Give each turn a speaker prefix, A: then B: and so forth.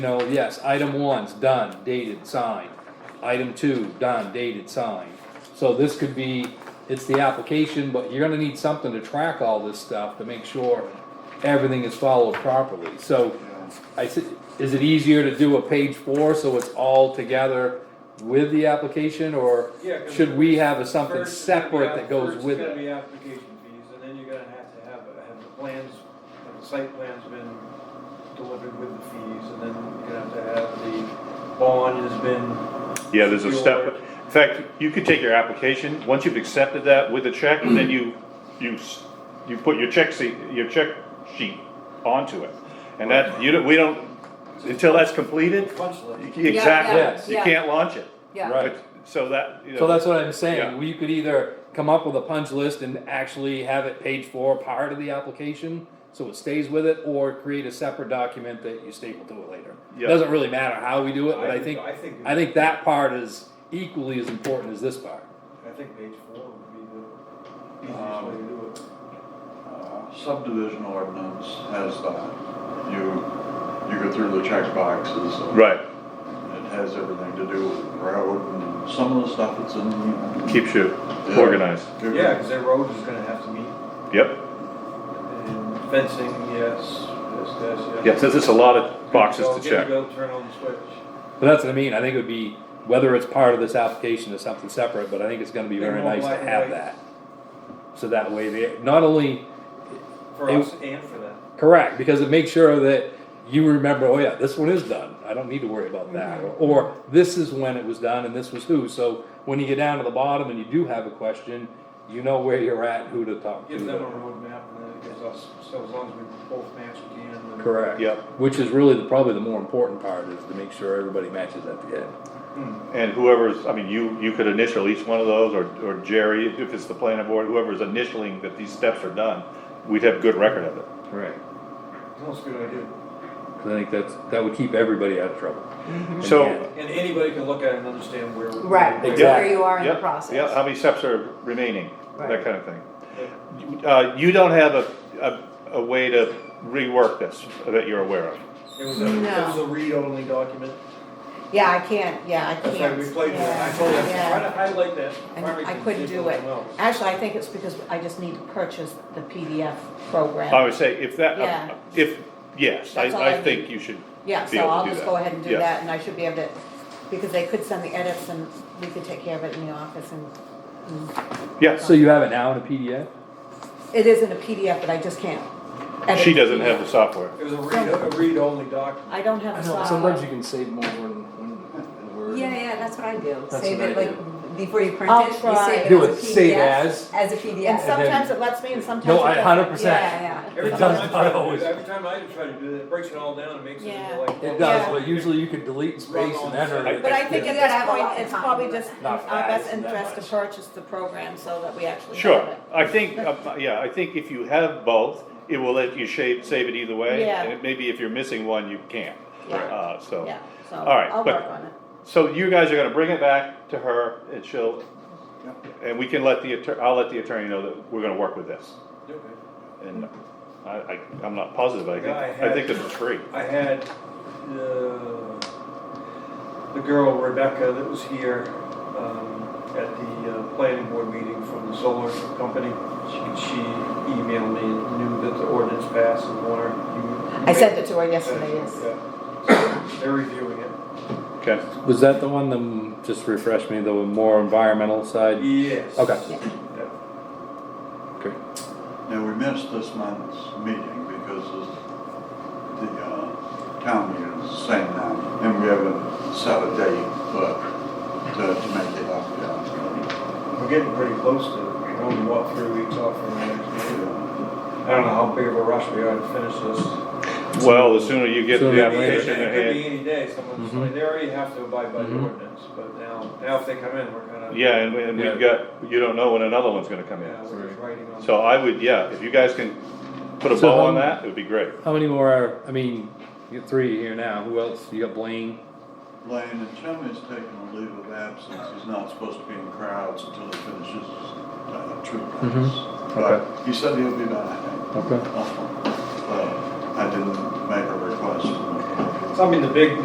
A: No, yes, item one's done, dated, signed. Item two, done, dated, signed. So this could be, it's the application, but you're gonna need something to track all this stuff to make sure everything is followed properly. So I said, is it easier to do a page four so it's all together with the application or
B: Yeah, 'cause
A: should we have a something
B: First, it's gonna be
A: separate
B: app-
A: that goes with
B: First,
A: it?
B: it's gonna be application fees, and then you're gonna have to have, have the plans, have the site plans been delivered with the fees, and then you're gonna have to have the bond has been,
C: Yeah, there's a step, in fact, you could take your application, once you've accepted that with a check, then you, you, s- you put your check seat, your check sheet onto it. And that, you don't, we don't, until that's completed,
B: punch
C: you-
B: list.
A: Yes.
C: exactly, you can't launch it.
A: Right.
D: Yeah,
C: But- So that, you know.
A: So that's what I'm
C: Yeah.
A: saying, we could either come up with a punch list and actually have it page four part of the application, so it stays with it, or create a separate document that you staple to it later.
C: Yeah.
A: Doesn't really matter how we do it, but
B: I
A: I
B: think-
A: think,
B: I think-
A: I think that part is equally as important as this part.
B: I think page four would be the easiest
E: Um,
B: way to do it.
E: Uh, Subdivision ordinance has that. You, you go through the checkboxes. and
C: Right,
E: It has everything to do with road and some of the stuff that's in.
C: keeps you organized,
B: Yeah, cause their road is gonna have to meet,
C: yep.
B: and fencing, yes, this, this, yes.
C: Yeah, so there's a lot of boxes
B: Go,
C: to
B: get
C: check.
B: Go, turn on the switch.
A: But that's what I mean, I think it would be, whether it's part of this application or something separate, but I think it's gonna be
B: They
A: very
B: want
A: nice
B: black
A: to
B: and
A: have
B: white.
A: that. So that way, they, not only,
B: For
A: It-
B: us and for them.
A: Correct, because it makes sure that you remember, oh yeah, this one is done, I don't need to worry about that, or, or this is when it was done and this was who, so when you get down to the bottom and you do have a question, you know where you're at, and who to talk
B: Give them a
A: to.
B: roadmap and then it gives us, so as long as we both match at the end. then-
A: Correct.
C: Yep.
A: Which is really the, probably the more important part, is to make sure everybody matches at the end.
B: Hmm.
C: And whoever's, I mean, you, you could initial each one of those, or, or Jerry, if it's the planning board, whoever's initialing that these steps are done, we'd have good record of it.
A: Right.
B: That's a good idea.
A: I think that's, that would keep everybody out of trouble.
C: So,
B: And anybody can look at it and understand where.
D: right,
B: where-
A: Exactly.
D: where you are in the
C: Yep, Yeah, how
D: process.
C: many steps are remaining, that
D: Right.
C: kind of thing. Uh, you don't have a, a, a way to rework this that you're aware of.
B: It was a, it
D: No.
B: was a read-only document.
D: Yeah, I can't, yeah, I
B: That's right,
D: can't.
B: we played with it. I
D: yeah,
B: told them, try to
D: yeah.
B: highlight that.
D: And
B: Probably
D: I
B: can
D: couldn't
B: see
D: do it.
B: something else.
D: Actually, I think it's because I just need to purchase the PDF
C: I
D: program.
C: would say if
D: Yeah.
C: that, uh, if, yes, I,
D: That's all
C: I
D: I
C: think
D: need.
C: you should,
D: Yeah,
C: be
D: so
C: able to
D: I'll
C: do
D: just
C: that.
D: go ahead and do
C: Yeah.
D: that, and I should be able to, because they could send the edits and we could take care of it in the office and. and-
C: yes,
A: So you have it now in a PDF?
D: It is in a PDF, but I just can't. edit
C: she
D: the
C: doesn't have the
D: PDF.
C: software.
B: It was a read, a read-only document.
D: I don't have
F: I
D: the
F: know,
D: software.
F: sometimes you can save more than one word.
G: Yeah, yeah, that's what I do.
F: That's
G: Save
F: what I
G: it like before you print
D: I'll
G: it. you
D: try.
G: save
F: Do
G: as
F: it,
G: a
F: save
G: PDF,
F: as.
G: As a
D: And
G: PDF.
A: so-
D: sometimes it lets me and sometimes.
A: No,
D: it
A: I,
D: doesn't.
A: hundred percent.
G: Yeah, yeah.
B: Every
A: It
B: time
A: does
B: I
A: not
B: try to,
A: always.
B: do- every time I try to do that, it breaks it all down and makes it
G: Yeah.
B: into like.
A: It does, but usually you can delete and space and enter. it.
D: But I think at
G: You gotta
D: this
G: have a lot
D: point,
G: of
D: it's
G: time
D: probably
G: to do
D: just in
A: Not
D: our best
A: fast, not
D: interest to
A: much.
D: purchase the program so that we actually have
C: Sure,
D: it.
C: I think, uh, yeah, I think if you have both, it will let you shave, save it either way.
D: Yeah.
C: And maybe if you're missing one, you can't,
D: Yeah.
C: uh, so.
D: Yeah, so
C: All right,
D: I'll
C: but-
D: work on it.
C: So you guys are gonna bring it back to her and she'll,
E: Yep.
C: and we can let the attorney, I'll let the attorney know that we're gonna work with this.
B: Okay.
C: And I, I, I'm not positive, I think,
B: Yeah, I
C: I think
B: had-
C: this is free.
B: I had the, the girl Rebecca that was here um, at the uh, planning board meeting from the solar company. She, she emailed me and knew that the ordinance passed and wanted you.
D: I sent it to her yesterday, yes.
B: Yeah. So They're reviewing it.
C: Okay,
A: Was that the one that, just refresh me, the more environmental side?
B: Yes.
A: Okay.
B: Yeah.
E: Now, we missed this month's meeting because of the uh, town meeting is the same now, and we haven't set a date, but to, to make it up, yeah.
B: We're getting pretty close to, we're only what, three weeks off from the next meeting.
E: Yeah.
B: I don't know how big of a rush we are to finish this.
C: well, the sooner you get
A: Sooner
C: the
A: Yeah,
B: Could be
A: later.
B: any-
C: application in
B: It could be
C: hand,
B: any day,
C: Mm-hmm.
B: someone's,
A: Mhm.
B: they already have to abide by the
A: Mhm.
B: ordinance, but now, now if they come in, we're kind of.
C: yeah, and, and we've got, you don't know when another one's gonna come
B: Yeah,
C: in.
B: we're just writing on.
C: So I would, yeah, if you guys can put a
A: So,
C: bow on
A: um,
C: that, it would be great.
A: How many more are, I mean, you got three here now, who else? You got Blaine?
E: Blaine and Tommy's taking a leave of absence, he's not supposed to be in crowds until he finishes uh, treatments. But he said he'll be back. Uh,
A: Okay.
E: But I didn't make a request.
B: I mean, the big,